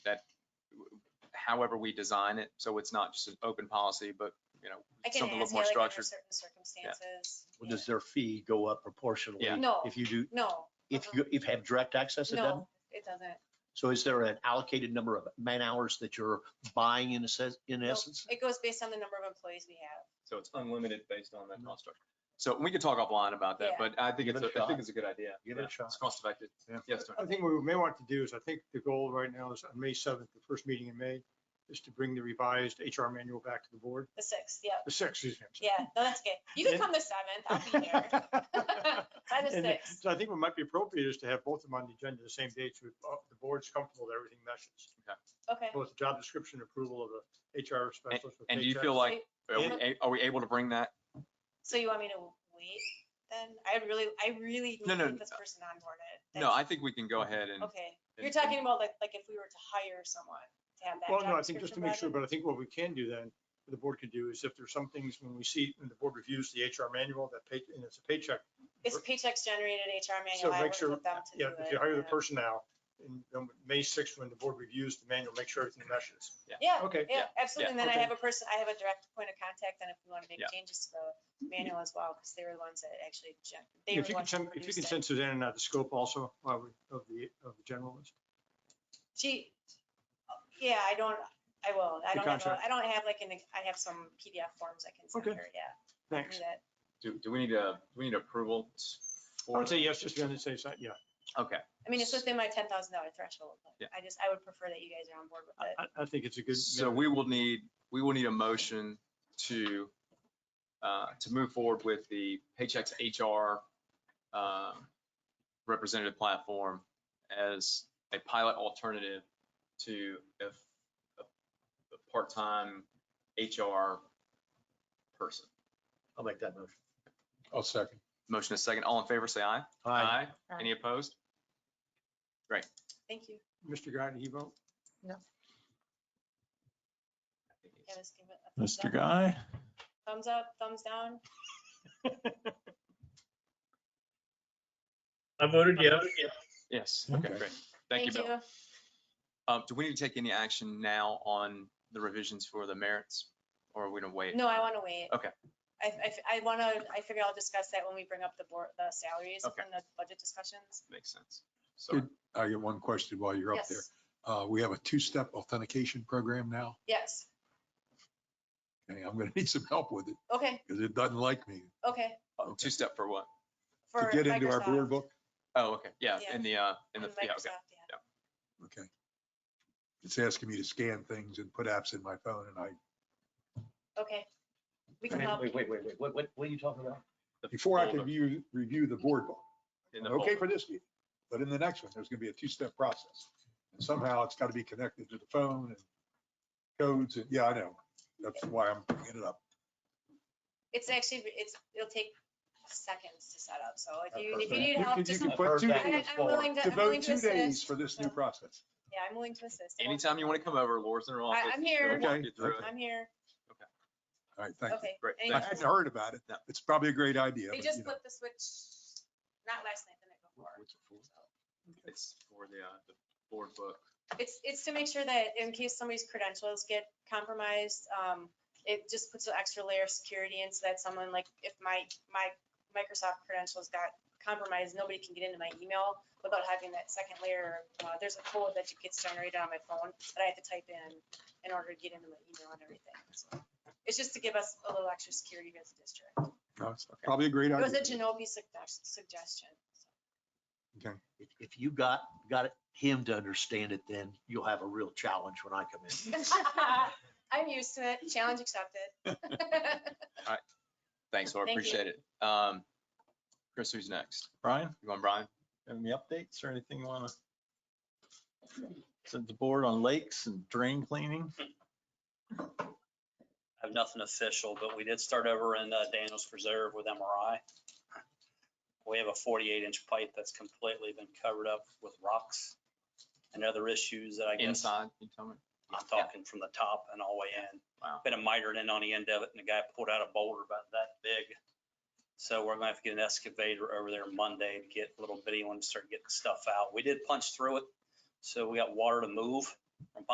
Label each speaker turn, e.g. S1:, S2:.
S1: that however we design it, so it's not just an open policy, but, you know,
S2: I can
S1: something a
S2: ask
S1: little
S2: you
S1: more
S2: like under
S1: structured.
S2: certain circumstances.
S3: Well, Does their fee go up proportionally?
S1: Yeah.
S2: No.
S3: If you do,
S2: No, Uh-huh.
S3: if you, if you have direct access, it doesn't?
S2: no, it doesn't.
S3: So is there an allocated number of man hours that you're buying in a sense, in
S2: Nope.
S3: essence?
S2: It goes based on the number of employees we have.
S1: So it's unlimited based on that cost structure. So we could talk offline about that,
S2: Yeah.
S1: but I think
S3: Mm-hmm. Give
S1: it's,
S3: it a
S1: a- I
S3: shot.
S1: think it's a good idea.
S3: Give it a
S1: Yeah,
S3: shot.
S1: It's cost effective.
S4: Yeah.
S1: Yes, sir.
S4: I think what we may want to do is, I think the goal right now is on May 7th, the first meeting in May, is to bring the revised HR manual back to the board.
S2: The sixth, yeah,
S4: The sixth, excuse me. I'm sorry.
S2: yeah, no, that's okay. You can
S4: And-
S2: come the seventh, I'll be here. By the
S4: And
S2: sixth,
S4: So I think what might be appropriate is to have both of them on the agenda the same day so uh, the board's comfortable that everything meshes.
S2: okay.
S4: Both the job description approval of the HR specialist. with
S1: And do you
S4: paychecks.
S1: feel like, are we,
S4: Yeah.
S1: a- are we able to bring that?
S2: So you want me to wait then? I really, I really need
S1: No,
S2: to
S1: no,
S2: get this person onboarded.
S1: No, I think we can go ahead and,
S2: Okay,
S1: and-
S2: you're
S1: and-
S2: talking about like, like if we were to hire someone to have that
S4: Well, no,
S2: job
S4: I think just to
S2: description
S4: make sure,
S2: rather-
S4: but I think what we can do then, the board could do is if there's some things when we see, when the board reviews the HR manual, that pay, and it's a paycheck.
S2: It's paychecks generated HR
S4: So
S2: manual. I
S4: make
S2: worked
S4: sure,
S2: with them to do
S4: yeah,
S2: it.
S4: if you hire the
S2: yeah.
S4: person now, and then May sixth, when the board reviews the manual, make sure everything meshes.
S2: Yeah,
S4: Okay,
S2: Yeah, absolutely. And then I
S4: Okay.
S2: have a person, I have a direct point of contact, and if we want to make
S1: Yeah.
S2: changes to the manual as well, because they were the ones that actually, gen- they were
S4: if
S2: the
S4: you can
S2: ones
S4: send,
S2: that
S4: if you can
S2: produced it.
S4: send Suzanne out the scope also uh, of the, of the general list.
S2: She, yeah, I don't, I will. I don't have,
S4: The
S2: a-
S4: contract.
S2: I don't have like, an. I have some PDF forms I can send
S4: Okay.
S2: her, yeah. I'll do
S4: Thanks.
S2: that.
S1: do, do we need a, do we need approval?
S4: I would say yes, just to be on the safe side, yeah.
S1: Okay,
S2: I mean, it's within my ten thousand dollar threshold,
S1: Yeah.
S2: but I just, I would prefer that you guys are on board with it.
S4: I- I, I think it's a good.
S1: so we will need, we will need a motion to, uh, to move forward with the Paychex HR, uh, representative platform as a pilot alternative to a, a- a part-time HR person.
S3: I'll make that motion.
S5: I'll second.
S1: Motion is second. All in favor, say aye.
S3: Aye.
S1: Any opposed?
S2: Thank you.
S4: Mr. Guy, he vote?
S2: Yeah, let's give it a thumbs
S5: Mr.
S2: up.
S5: Guy?
S2: Thumbs up, thumbs down.
S6: I voted yes.
S1: Yes.
S5: Okay.
S1: Great. Thank you, Bill. Um, do we need to take any action now on the revisions for the merits or are we gonna wait?
S2: No, I want to wait.
S1: Okay.
S2: I, I, I want to, I figure I'll discuss that when we bring up the board, the salaries
S1: Okay.
S2: in the budget discussions.
S1: Makes sense. So,
S5: Good. I get one question while you're up
S2: Yes,
S5: there. Uh, we have a two-step authentication program now.
S2: yes.
S5: Okay, I'm gonna need some help with it
S2: Okay,
S5: because it doesn't like me.
S2: okay.
S5: Oh,
S1: two step for what?
S5: To
S2: For
S5: get into our
S2: Microsoft
S5: board book,
S1: Oh, okay. Yeah,
S2: Yeah.
S1: in the, uh, in the,
S2: and
S1: yeah, okay.
S2: Microsoft, yeah.
S5: okay. It's asking me to scan things and put apps in my phone and I,
S2: Okay. We can
S3: Wait,
S2: help.
S3: wait, wait, wait, wait, what, what what are you talking about?
S1: The
S5: before I
S1: folder,
S5: can view, review the board book.
S1: in the
S5: I'm Okay
S1: folder.
S5: for this meeting, but in the next one, there's gonna be a two-step process. And somehow it's gotta be connected to the phone and codes and, yeah, I know. That's why I'm bringing it up.
S2: It's actually, it's, it'll take seconds to set up. So if
S5: I've
S2: you,
S5: heard
S2: if you
S5: that.
S2: need
S5: You
S2: help,
S5: could- you
S2: just,
S5: could
S2: let-
S5: put
S3: I've heard
S5: two
S3: that
S2: I-
S3: before.
S2: I'm willing to, I'm willing
S5: Devote
S2: to
S5: two days
S2: assist.
S5: for this new process.
S2: Yeah, I'm willing to assist. Don't-
S1: Anytime you want to come over, Laura's in her office.
S2: I'm here.
S1: She'll walk you through it.
S2: I'm here.
S5: All right, thank you.
S2: Okay.
S1: Great,
S5: I
S2: anytime.
S1: thank you.
S5: hadn't heard about it.
S1: No.
S5: It's probably a great idea.
S2: They
S5: but,
S2: just
S5: you know,
S2: flipped the switch, not last night, the night before. so.
S1: It's for the, uh, the board book.
S2: It's, it's to make sure that in case somebody's credentials get compromised, um, it just puts an extra layer of security in so that someone like, if my, my Microsoft credentials got compromised, nobody can get into my email without having that second layer. Uh, there's a code that gets generated on my phone that I have to type in in order to get into my email and everything. So It's just to give us a little extra security as a district.
S5: no, it's Probably a great
S2: It was a
S5: idea.
S2: Genovese sugges- suggestion. so.
S5: Okay.
S3: If- If you got, got it- him to understand it, then you'll have a real challenge when I come in.
S2: I'm used to it. Challenge accepted.
S1: Thanks, Laura.
S2: Thank you.
S1: Appreciate it. Um, Chris, who's next?
S7: Brian,
S1: You want Brian?
S7: any updates or anything you wanna? Send the board on lakes and drain cleaning?
S8: I have nothing official, but we did start over in uh, Daniels Preserve with MRI. We have a 48 inch pipe that's completely been covered up with rocks and other issues that I guess
S1: Inside, you tell me.
S8: I'm talking from the top and all the way in.
S1: Wow.
S8: Been a mitered in on the end of it and the guy pulled out a boulder about that big. So we're gonna have to get an excavator over there Monday to get a little bitty one to start getting stuff out. We did punch through it. So we got water to move, from